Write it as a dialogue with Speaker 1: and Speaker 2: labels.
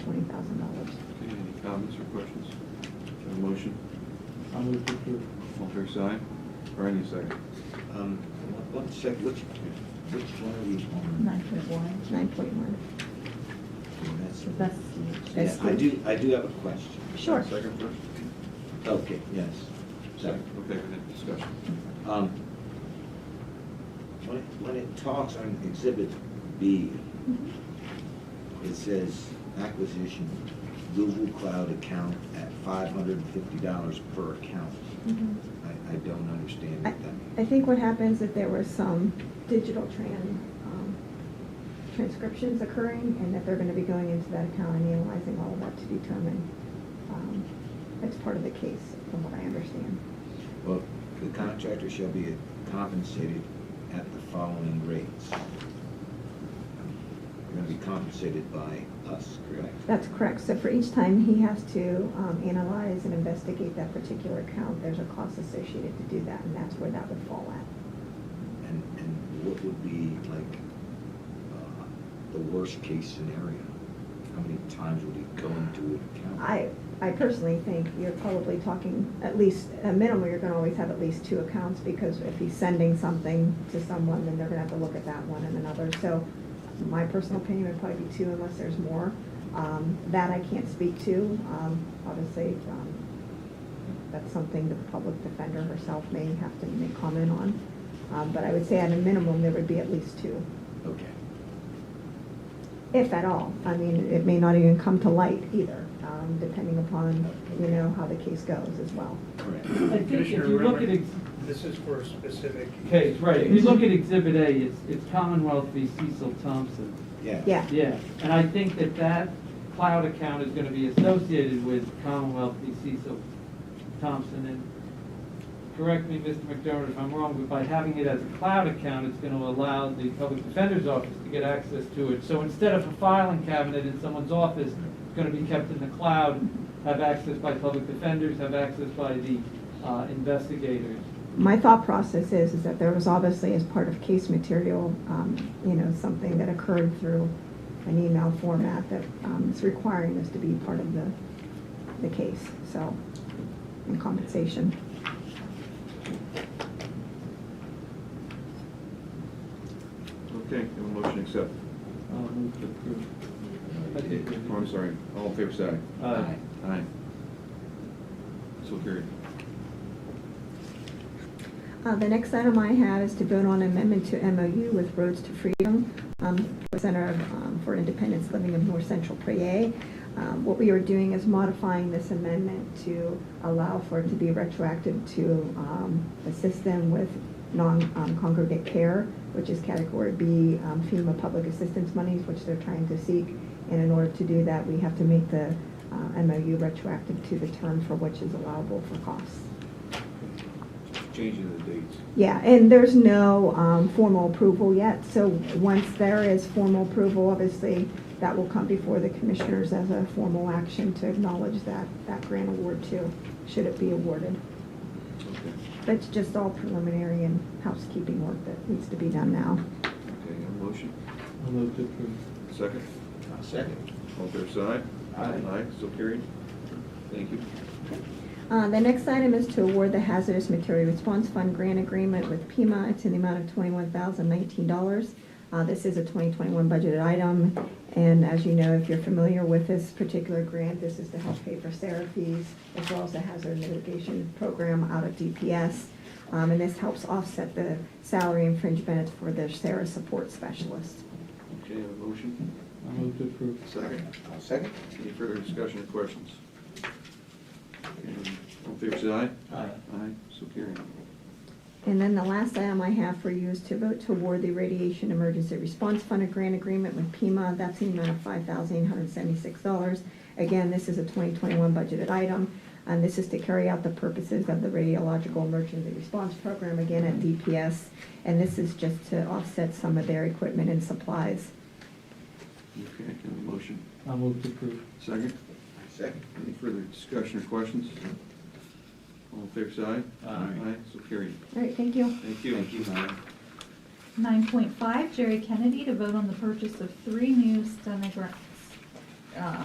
Speaker 1: twenty thousand dollars.
Speaker 2: Okay, any comments or questions? Do you have a motion?
Speaker 3: I'll move to approve.
Speaker 2: All fair side? Bernie, second.
Speaker 4: Um, one sec, which, which one are we on?
Speaker 1: Nine point one. Nine point one.
Speaker 4: That's-
Speaker 1: That's.
Speaker 4: Yeah, I do, I do have a question.
Speaker 1: Sure.
Speaker 2: Second first?
Speaker 4: Okay, yes. Second.
Speaker 2: Okay, we had discussion.
Speaker 4: Um, When it, when it talks on exhibit B,
Speaker 1: Mhm.
Speaker 4: it says acquisition Google Cloud account at five hundred and fifty dollars per account.
Speaker 1: Mhm.
Speaker 4: I, I don't understand
Speaker 1: I
Speaker 4: what that means.
Speaker 1: I think what happens if there was some digital tran, um, transcriptions occurring, and that they're gonna be going into that account and analyzing all of that to determine, um, that's part of the case, from what I understand.
Speaker 4: Well, the contractor shall be compensated at the following rates. You're gonna be compensated by us, correct?
Speaker 1: That's correct, so for each time he has to, um, analyze and investigate that particular account, there's a cost associated to do that, and that's where that would fall at.
Speaker 4: And, and what would be like, uh, the worst case scenario? How many times would he go into an account?
Speaker 1: I, I personally think you're probably talking, at least, at minimum, you're gonna always have at least two accounts, because if he's sending something to someone, then they're gonna have to look at that one and another, so my personal opinion would probably be two unless there's more. Um, that I can't speak to, um, obviously, um, that's something the public defender herself may have to make comment on. Um, but I would say at a minimum, there would be at least two.
Speaker 4: Okay.
Speaker 1: If at all. I mean, it may not even come to light either, um, depending upon, you know, how the case goes as well.
Speaker 4: Correct.
Speaker 5: I think if
Speaker 6: Commissioner
Speaker 5: you look at,
Speaker 6: Remmer?
Speaker 5: ex-
Speaker 6: This is for a specific.
Speaker 3: Okay, right, if you look at Exhibit A, it's, it's Commonwealth v. Cecil Thompson.
Speaker 4: Yeah.
Speaker 1: Yeah.
Speaker 3: Yeah, and I think that that cloud account is gonna be associated with Commonwealth v. Cecil Thompson, and correct me, Mr. McDermott, if I'm wrong, but by having it as a cloud account, it's gonna allow the public defender's office to get access to it. So instead of a filing cabinet in someone's office, it's gonna be kept in the cloud, have access by public defenders, have access by the uh, investigators.
Speaker 1: My thought process is, is that there was obviously as part of case material, um, you know, something that occurred through an email format that, um, is requiring this to be part of the, the case, so, and compensation.
Speaker 2: Okay, have a motion accept.
Speaker 3: Uh, move to approve.
Speaker 2: Okay, oh, I'm sorry, all in favor, side?
Speaker 3: Aye.
Speaker 2: Aye. So carried.
Speaker 1: Uh, The next item I have is to vote on amendment to MOU with Roads to Freedom, um, for Center of, um, for Independence Living of North Central Prairie. Um, What we are doing is modifying this amendment to allow for it to be retroactive to um, assist them with non-congregate care, which is category B um, FEMA public assistance monies, which they're trying to seek. And in order to do that, we have to make the uh, MOU retroactive to the term for which is allowable for costs.
Speaker 2: Changing the dates.
Speaker 1: Yeah, and there's no um, formal approval yet, so once there is formal approval, obviously, that will come before the commissioners as a formal action to acknowledge that, that grant award too, should it be awarded.
Speaker 2: Okay.
Speaker 1: But it's just all preliminary and housekeeping work that needs to be done now.
Speaker 2: Okay, have a motion,
Speaker 3: I'll move to approve.
Speaker 2: second,
Speaker 4: I'll second.
Speaker 2: all fair side?
Speaker 3: Aye.
Speaker 2: Aye, so carried. Thank you.
Speaker 1: Uh, The next item is to award the Hazardous Material Response Fund Grant Agreement with Pima. It's in the amount of $21,019. Uh, This is a 2021 budgeted item, and as you know, if you're familiar with this particular grant, this is to help pay for therapies as well as the hazard mitigation program out of DPS. Um, And this helps offset the salary infringement for the Sarah support specialist.
Speaker 2: Okay, have a motion,
Speaker 3: I'll move to approve.
Speaker 2: second.
Speaker 4: I'll second.
Speaker 2: Any further discussion or questions? Okay, All in favor, say aye?
Speaker 3: Aye.
Speaker 2: Aye, so carried.
Speaker 1: And then the last item I have for you is to vote to award the Radiation Emergency Response Fund a grant agreement with Pima. That's in the amount of five thousand eight hundred seventy-six dollars. Again, this is a twenty twenty-one budgeted item, and this is to carry out the purposes of the Radiological Emergency Response Program, again at DPS. And this is just to offset some of their equipment and supplies.
Speaker 2: Okay, have a motion,
Speaker 3: I'll move to approve.
Speaker 2: second.
Speaker 4: Second.
Speaker 2: Any further discussion or questions? All in favor, say aye?
Speaker 4: Aye.
Speaker 2: Aye, so carried.
Speaker 1: All right, thank you.
Speaker 2: Thank you.
Speaker 4: Thank you, Howard.
Speaker 7: 9.5, Jerry Kennedy to vote on the purchase of three new stenogra- uh,